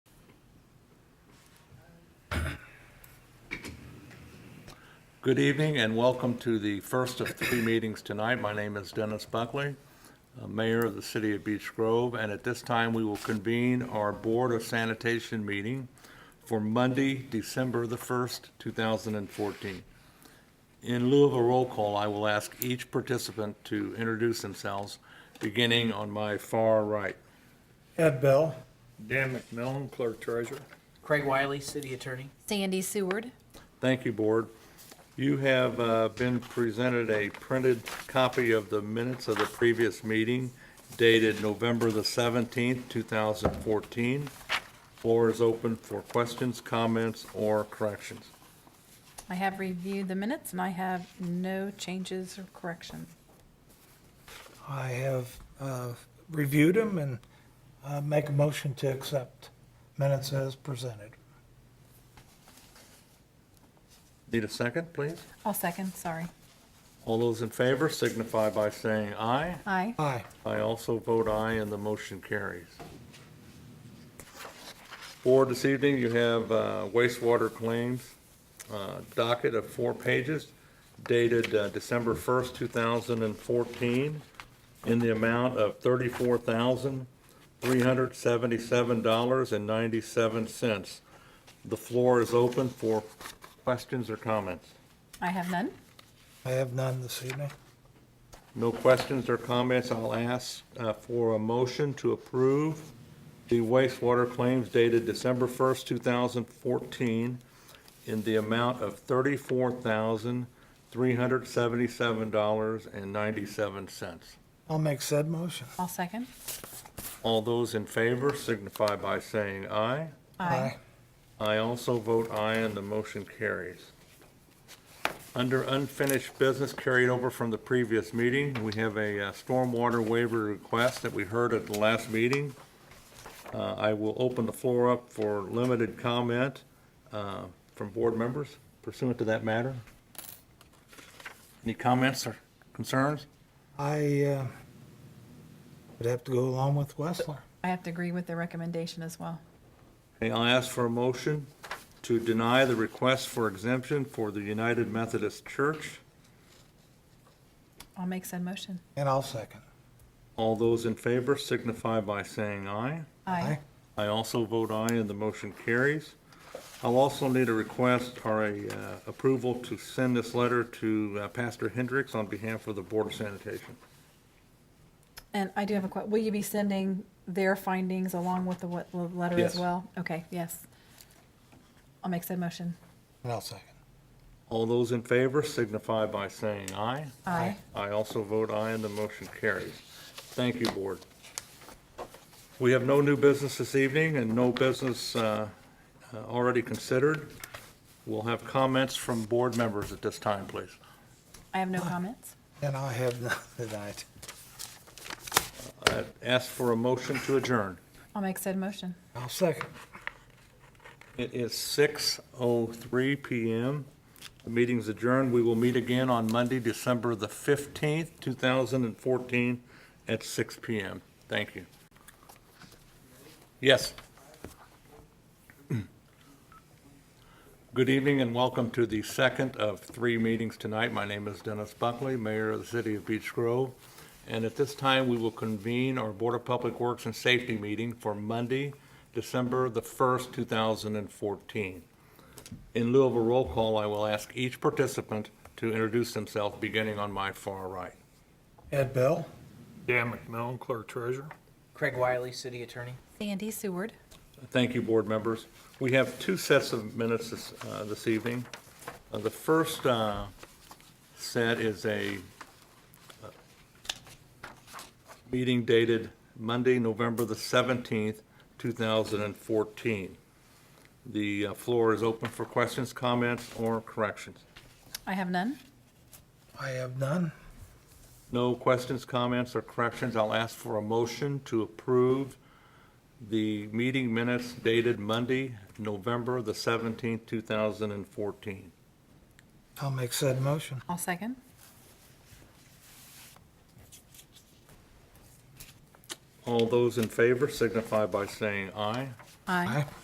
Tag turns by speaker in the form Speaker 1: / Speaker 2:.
Speaker 1: Good evening and welcome to the first of three meetings tonight. My name is Dennis Buckley, uh, Mayor of the City of Beech Grove, and at this time, we will convene our Board of Sanitation meeting for Monday, December the 1st, 2014. In lieu of a roll call, I will ask each participant to introduce themselves, beginning on my far right.
Speaker 2: Ed Bell.
Speaker 3: Dan McMillan, Clerk Treasurer.
Speaker 4: Craig Wiley, City Attorney.
Speaker 5: Sandy Seward.
Speaker 1: Thank you, Board. You have uh, been presented a printed copy of the minutes of the previous meeting dated November the 17th, 2014. Floor is open for questions, comments, or corrections.
Speaker 5: I have reviewed the minutes and I have no changes or corrections.
Speaker 2: I have uh, reviewed them and uh, make a motion to accept minutes as presented.
Speaker 1: Need a second, please?
Speaker 5: I'll second, sorry.
Speaker 1: All those in favor signify by saying aye.
Speaker 5: Aye.
Speaker 2: Aye.
Speaker 1: I also vote aye, and the motion carries. Board, this evening, you have uh, wastewater claims uh, docket of four pages dated uh, December 1st, 2014, in the amount of $34,377.97. The floor is open for questions or comments.
Speaker 5: I have none.
Speaker 2: I have none this evening.
Speaker 1: No questions or comments, I'll ask uh, for a motion to approve the wastewater claims dated December 1st, 2014, in the amount of $34,377.97.
Speaker 2: I'll make said motion.
Speaker 5: I'll second.
Speaker 1: All those in favor signify by saying aye. I also vote aye, and the motion carries. Under unfinished business carried over from the previous meeting, we have a uh, stormwater waiver request that we heard at the last meeting. Uh, I will open the floor up for limited comment uh, from board members pursuant to that matter. Any comments or concerns?
Speaker 2: I uh, would have to go along with Westler.
Speaker 5: I have to agree with the recommendation as well.
Speaker 1: Okay, I'll ask for a motion to deny the request for exemption for the United Methodist Church.
Speaker 5: I'll make said motion.
Speaker 2: And I'll second.
Speaker 1: All those in favor signify by saying aye.
Speaker 5: Aye.
Speaker 1: I also vote aye, and the motion carries. I'll also need a request or a uh, approval to send this letter to uh, Pastor Hendricks on behalf of the Board of Sanitation.
Speaker 5: And I do have a que, will you be sending their findings along with the what, the letter
Speaker 1: Yes.
Speaker 5: as well? Okay, yes. I'll make said motion.
Speaker 2: And I'll second.
Speaker 1: All those in favor signify by saying aye.
Speaker 5: Aye.
Speaker 1: I also vote aye, and the motion carries. Thank you, Board. We have no new business this evening and no business uh, uh, already considered. We'll have comments from board members at this time, please.
Speaker 5: I have no comments.
Speaker 2: And I have none tonight.
Speaker 1: I Ask for a motion to adjourn.
Speaker 5: I'll make said motion.
Speaker 2: I'll second.
Speaker 1: It is 6:03 PM. The meeting's adjourned. We will meet again on Monday, December the 15th, 2014, at 6 PM. Thank you. Yes. Good evening and welcome to the second of three meetings tonight. My name is Dennis Buckley, Mayor of the City of Beech Grove. And at this time, we will convene our Board of Public Works and Safety meeting for Monday, December the 1st, 2014. In lieu of a roll call, I will ask each participant to introduce themselves, beginning on my far right.
Speaker 2: Ed Bell.
Speaker 3: Dan McMillan, Clerk Treasurer.
Speaker 4: Craig Wiley, City Attorney.
Speaker 5: Sandy Seward.
Speaker 1: Thank you, board members. We have two sets of minutes this, uh, this evening. Uh, The first uh, set is a uh, meeting dated Monday, November the 17th, 2014. The uh, floor is open for questions, comments, or corrections.
Speaker 5: I have none.
Speaker 2: I have none.
Speaker 1: No questions, comments, or corrections. I'll ask for a motion to approve the meeting minutes dated Monday, November the 17th, 2014.
Speaker 2: I'll make said motion.
Speaker 5: I'll second.
Speaker 1: All those in favor signify by saying aye.
Speaker 5: Aye.